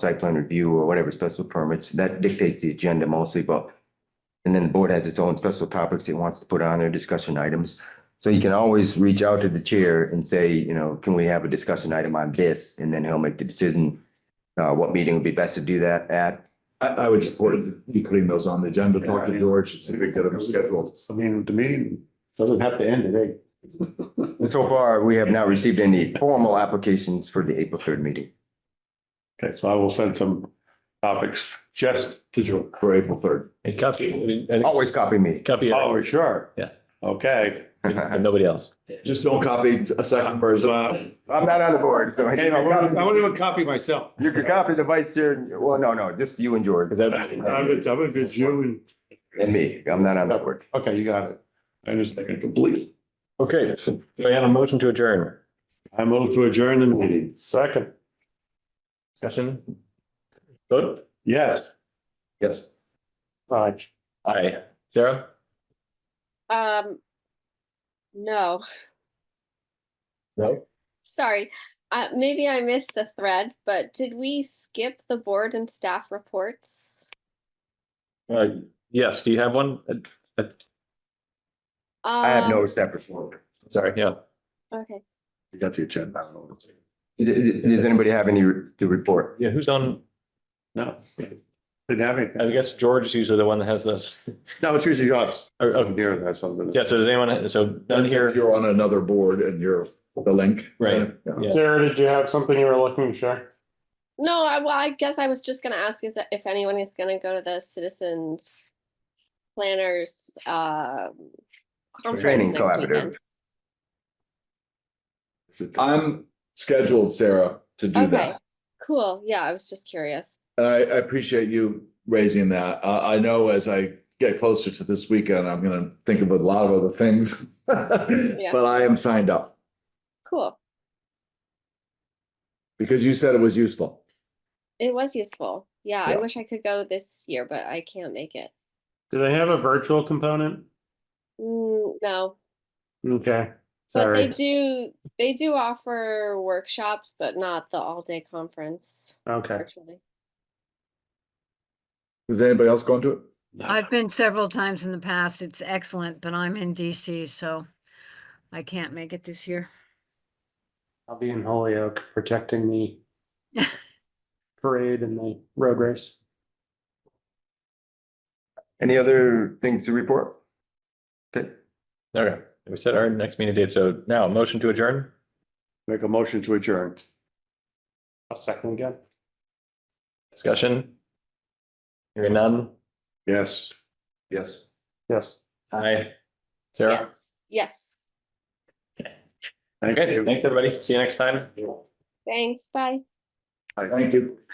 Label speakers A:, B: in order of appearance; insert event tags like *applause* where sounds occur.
A: site plan review or whatever special permits, that dictates the agenda mostly, but and then the board has its own special topics it wants to put on their discussion items. So you can always reach out to the chair and say, you know, can we have a discussion item on this? And then he'll make the decision uh, what meeting would be best to do that at.
B: I, I would support you putting those on the agenda, talk to George, see if we can get them scheduled.
C: I mean, the meeting doesn't have to end today.
A: And so far, we have not received any formal applications for the April third meeting.
C: Okay, so I will send some topics just to George.
B: For April third.
D: And copy, and- and
A: Always copy me. *laughs*
D: copy
C: Oh,
D: it,
C: for sure.
D: Yeah.
C: Okay.
D: and nobody else.
B: Just don't copy a second person.
A: I'm not on the board, so.
C: Hey, I wouldn't I wouldn't even copy myself.
A: You could copy the vice chair, and- well, no, no, just you and George
C: I'm with, I'm with you and,
A: and me. I'm not on that board.
C: okay, you got it. I understand
B: Complete.
D: Okay, so do I have a motion to adjourn?
C: I move to adjourn the meeting. Second.
D: Discussion? Vote?
C: Yes.
D: Yes.
C: Aye.
D: Aye. Sarah?
E: Um, no,
D: No.
E: sorry. Uh, maybe I missed a thread, but did we skip the board and staff reports?
D: Uh, yes, do you have one? Uh,
A: I have no
E: Um,
A: separate board.
D: Sorry, yeah.
E: Okay,
B: You got the agenda.
A: Does does anybody have any to report?
D: Yeah, who's on?
C: No. Didn't have anything.
D: I guess George is usually the one that has this.
C: No, it's usually us.
D: Oh,
C: I'm
D: oh,
C: here, that's something.
D: Yeah, so does anyone, so none
B: Then here,
D: here,
B: you're on another board and you're the link.
D: Right.
B: Yeah.
D: Yeah.
F: Sarah, did you have something you were looking to share?
E: no, I, well, I guess I was just gonna ask is that if anyone is gonna go to the citizens planners, um, conference
A: Training
E: next
A: collaborative.
E: weekend.
B: I'm scheduled, Sarah, to do
E: Okay.
B: that.
E: Cool, yeah, I was just curious.
B: And I, I appreciate you raising that. I, I know as I get closer to this weekend, I'm gonna think of a lot of other things. *laughs* But I am signed up
E: Cool,
B: because you said it was useful.
E: it was useful. Yeah, I
B: Yeah.
E: wish I could go this year, but I can't make it.
F: Do they have a virtual component?
E: Mm, no,
F: Okay,
E: But they
F: sorry.
E: do they do offer workshops, but not the all day conference
F: Okay.
E: virtually.
B: Is anybody else going to it?
G: I've been several times in the past. It's excellent, but I'm in DC, so I can't make it this year.
F: I'll be in Holyoke protecting the parade and the road race.
A: Any other things to report? Okay,
D: okay, we set our next meeting date, so now motion to adjourn?
C: Make a motion to adjourn.
F: I'll second again.
D: Discussion? Hearing none?
C: Yes.
B: Yes.
F: Yes.
D: Aye. Sarah?
E: Yes, yes.
C: Thank
D: Okay,
C: you.
D: thanks, everybody. See you next time.
E: Thanks. Bye.
B: Thank you.